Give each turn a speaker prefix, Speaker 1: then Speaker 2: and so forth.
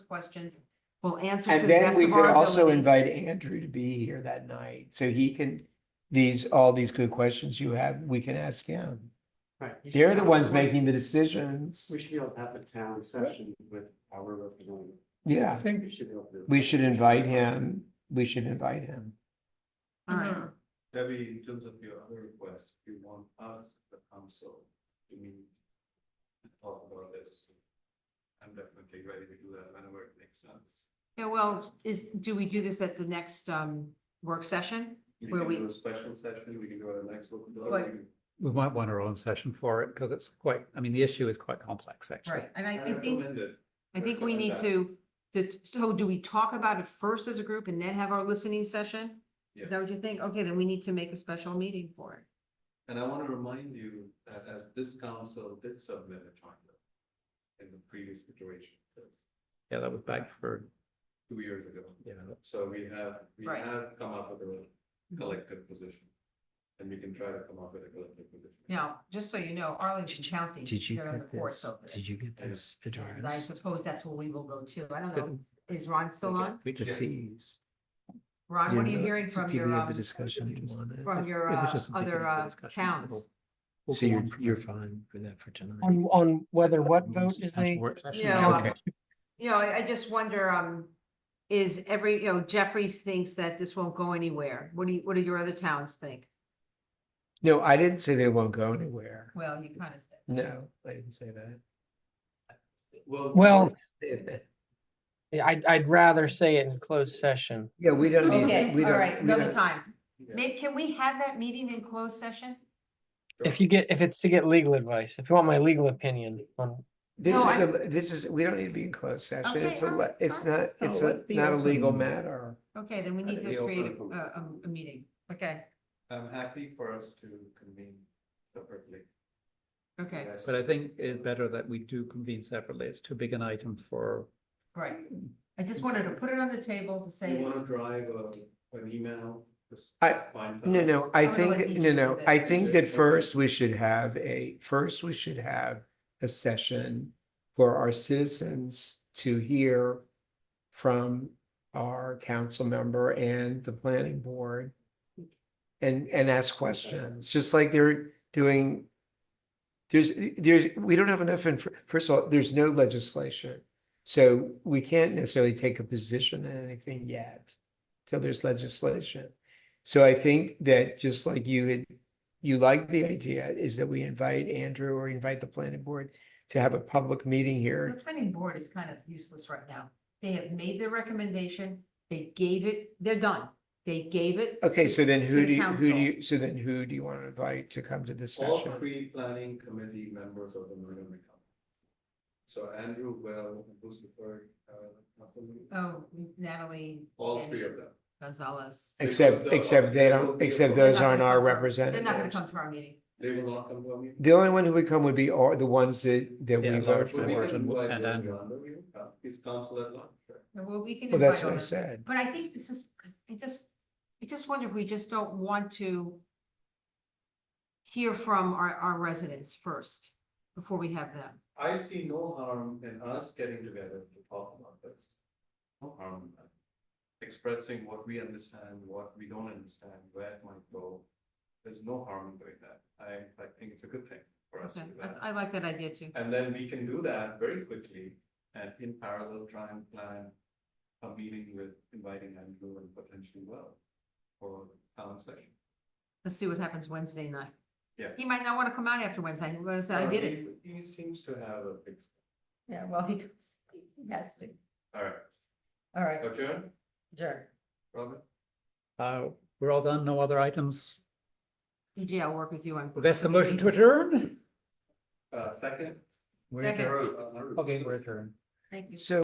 Speaker 1: questions. We'll answer to the
Speaker 2: And then
Speaker 1: best
Speaker 2: we
Speaker 1: of
Speaker 2: could
Speaker 1: our
Speaker 2: also
Speaker 1: ability.
Speaker 2: invite Andrew to be here that night, so he can, these, all these good questions you have, we can ask him.
Speaker 3: Right. you should
Speaker 2: They're the
Speaker 3: have
Speaker 2: ones
Speaker 3: one-
Speaker 2: making the decisions.
Speaker 3: We should be able to have a town session with our representative.
Speaker 2: Yeah, I
Speaker 3: We
Speaker 2: think
Speaker 3: should be able to.
Speaker 2: we should invite him. We should invite him.
Speaker 1: All right.
Speaker 4: Debbie, in terms of your other request, you want us, the council, to meet to talk about this. I'm definitely ready to do that whenever it makes sense.
Speaker 1: Yeah, well, is, do we do this at the next um work session?
Speaker 4: We
Speaker 1: Where
Speaker 4: can
Speaker 1: we-
Speaker 4: do a special session, we can do it next week.
Speaker 1: Right.
Speaker 5: We might want our own session for it because it's quite, I mean, the issue is quite complex, actually.
Speaker 1: And I,
Speaker 4: I
Speaker 1: I think,
Speaker 4: recommend it.
Speaker 1: I think we need to, to, so do we talk about it first as a group and then have our listening session? Is that what you think? Okay, then we need to make a special meeting for it.
Speaker 4: And I want to remind you that as this council did submit a charter in the previous situation,
Speaker 5: Yeah, that was back for,
Speaker 4: two years ago.
Speaker 5: you know,
Speaker 4: So we have, we
Speaker 1: Right.
Speaker 4: have come up with a collective position. And we can try to come up with a collective position.
Speaker 1: Now, just so you know, Arlington County.
Speaker 2: Did you
Speaker 1: they're on the
Speaker 2: get
Speaker 1: court
Speaker 2: this?
Speaker 1: over
Speaker 2: Did you
Speaker 1: this.
Speaker 2: get this
Speaker 1: And I
Speaker 2: address?
Speaker 1: suppose that's where we will go to. I don't know.
Speaker 5: couldn't-
Speaker 1: Is Ron still on?
Speaker 5: we
Speaker 2: The
Speaker 5: just- It
Speaker 2: fees.
Speaker 1: Ron, what are
Speaker 2: Yeah,
Speaker 1: you
Speaker 2: but
Speaker 1: hearing from
Speaker 2: did we
Speaker 1: your,
Speaker 2: have the
Speaker 1: um,
Speaker 2: Discussion. on it?
Speaker 1: from your
Speaker 5: was
Speaker 1: uh,
Speaker 5: just indicative
Speaker 1: other
Speaker 5: of
Speaker 1: uh,
Speaker 5: discussion.
Speaker 1: towns?
Speaker 5: We'll
Speaker 2: So
Speaker 5: go
Speaker 2: you're,
Speaker 5: on from
Speaker 2: you're
Speaker 5: there.
Speaker 2: fine with that for tonight?
Speaker 6: On, on whether what vote is
Speaker 5: Session,
Speaker 6: a,
Speaker 5: work session,
Speaker 1: Yeah.
Speaker 5: yeah.
Speaker 2: Okay.
Speaker 1: You know, I I just wonder, um, is every, you know, Jeffries thinks that this won't go anywhere. What do you, what do your other towns think?
Speaker 2: No, I didn't say they won't go anywhere.
Speaker 1: Well, you kind of said.
Speaker 2: No, I didn't say that.
Speaker 4: Well.
Speaker 6: well, I'd, I'd rather say it in closed session.
Speaker 2: Yeah, we don't need.
Speaker 1: Okay,
Speaker 2: we
Speaker 1: all
Speaker 2: don't-
Speaker 1: right,
Speaker 2: we
Speaker 1: another
Speaker 2: don't-
Speaker 1: time.
Speaker 4: Yeah.
Speaker 1: Maybe, can we have that meeting in closed session?
Speaker 6: If you get, if it's to get legal advice, if you want my legal opinion on,
Speaker 2: This
Speaker 1: No,
Speaker 2: is
Speaker 1: I-
Speaker 2: a, this is, we don't need to be in closed session.
Speaker 1: Okay,
Speaker 2: It's a,
Speaker 1: all
Speaker 2: le-
Speaker 1: right,
Speaker 2: it's
Speaker 1: all
Speaker 2: not,
Speaker 5: No,
Speaker 2: it's a-
Speaker 5: Oh, let the
Speaker 2: not a legal
Speaker 5: open-
Speaker 2: matter.
Speaker 1: Okay, then we need
Speaker 4: That'd
Speaker 1: to
Speaker 4: be
Speaker 1: create a,
Speaker 4: open.
Speaker 1: a, a meeting. Okay,
Speaker 4: I'm happy for us to convene separately.
Speaker 1: okay,
Speaker 4: Yes.
Speaker 5: But I think it's better that we do convene separately. It's too big an item for,
Speaker 1: right. I just wanted to put it on the table to say,
Speaker 4: You
Speaker 1: it's-
Speaker 4: want to drive a, an email? Just
Speaker 2: I-
Speaker 4: find
Speaker 2: No,
Speaker 4: out.
Speaker 2: no, I
Speaker 1: I'm gonna let
Speaker 2: think,
Speaker 1: you
Speaker 2: no,
Speaker 1: do
Speaker 2: no,
Speaker 1: that.
Speaker 2: I
Speaker 4: Is
Speaker 2: think
Speaker 4: it-
Speaker 2: that first we should have a, first we should have a session for our citizens to hear from our council member and the planning board and, and ask questions, just like they're doing. There's, there's, we don't have enough, inf- first of all, there's no legislation. So we can't necessarily take a position on anything yet till there's legislation. So I think that just like you had, you like the idea is that we invite Andrew or invite the planning board to have a public meeting
Speaker 1: the
Speaker 2: here.
Speaker 1: planning board is kind of useless right now. They have made their recommendation, they gave it, they're done. They gave it.
Speaker 2: Okay,
Speaker 1: to-
Speaker 2: so then
Speaker 1: to
Speaker 2: who
Speaker 1: the
Speaker 2: do you, who do
Speaker 1: council.
Speaker 2: you, so then who do you want to invite to come to this
Speaker 4: All
Speaker 2: session?
Speaker 4: three planning committee members of the Montgomery County. So Andrew, Will, and Lucifer, uh, Anthony,
Speaker 1: Oh, Natalie.
Speaker 4: all
Speaker 1: and
Speaker 4: three of them.
Speaker 1: Gonzalez.
Speaker 2: Except,
Speaker 4: Because the-
Speaker 2: except they
Speaker 4: will
Speaker 2: don't,
Speaker 4: be
Speaker 2: except
Speaker 4: able-
Speaker 2: those aren't
Speaker 1: They're not
Speaker 2: our
Speaker 1: gonna
Speaker 2: representatives.
Speaker 1: come to our meeting.
Speaker 4: They will not come to a meeting.
Speaker 2: The only one who would come would be all the ones that, that we
Speaker 5: Yeah,
Speaker 2: vote
Speaker 5: large
Speaker 4: But
Speaker 2: for.
Speaker 4: we
Speaker 5: board.
Speaker 4: can invite
Speaker 5: And
Speaker 4: Will
Speaker 5: Andrew.
Speaker 4: Yonder, we will come. Uh, He's council at large. right?
Speaker 1: Well, we can.
Speaker 2: Well, that's
Speaker 1: invite
Speaker 2: what I
Speaker 1: others.
Speaker 2: said.
Speaker 1: But I think this is, I just, I just wonder if we just don't want to hear from our, our residents first, before we have them.
Speaker 4: I see no harm in us getting together to talk about this. No harm in that. Expressing what we understand, what we don't understand, where it might go. There's no harm in doing that. I, I think it's a good thing for us to
Speaker 1: Okay,
Speaker 4: do
Speaker 1: that's,
Speaker 4: that.
Speaker 1: I like that idea too.
Speaker 4: And then we can do that very quickly and in parallel try and plan a meeting with inviting Andrew and potentially Will for town session.
Speaker 1: Let's see what happens Wednesday night.
Speaker 4: Yeah.
Speaker 1: He might not want to come out after Wednesday. He's gonna say, I did it.
Speaker 4: He he seems to have a fix.
Speaker 1: Yeah, well, he does. Yes.
Speaker 4: All right,
Speaker 1: All right,
Speaker 4: adjourn,
Speaker 1: sure.
Speaker 4: Robin?
Speaker 5: uh, we're all done, no other items.
Speaker 1: DJ, I'll work with you on.
Speaker 5: Well, that's the motion to adjourn.
Speaker 4: Uh, second?
Speaker 5: We're
Speaker 1: Second.
Speaker 5: adjourned.
Speaker 4: Or, uh,
Speaker 5: Okay, we're adjourned.
Speaker 1: Thank you.
Speaker 2: So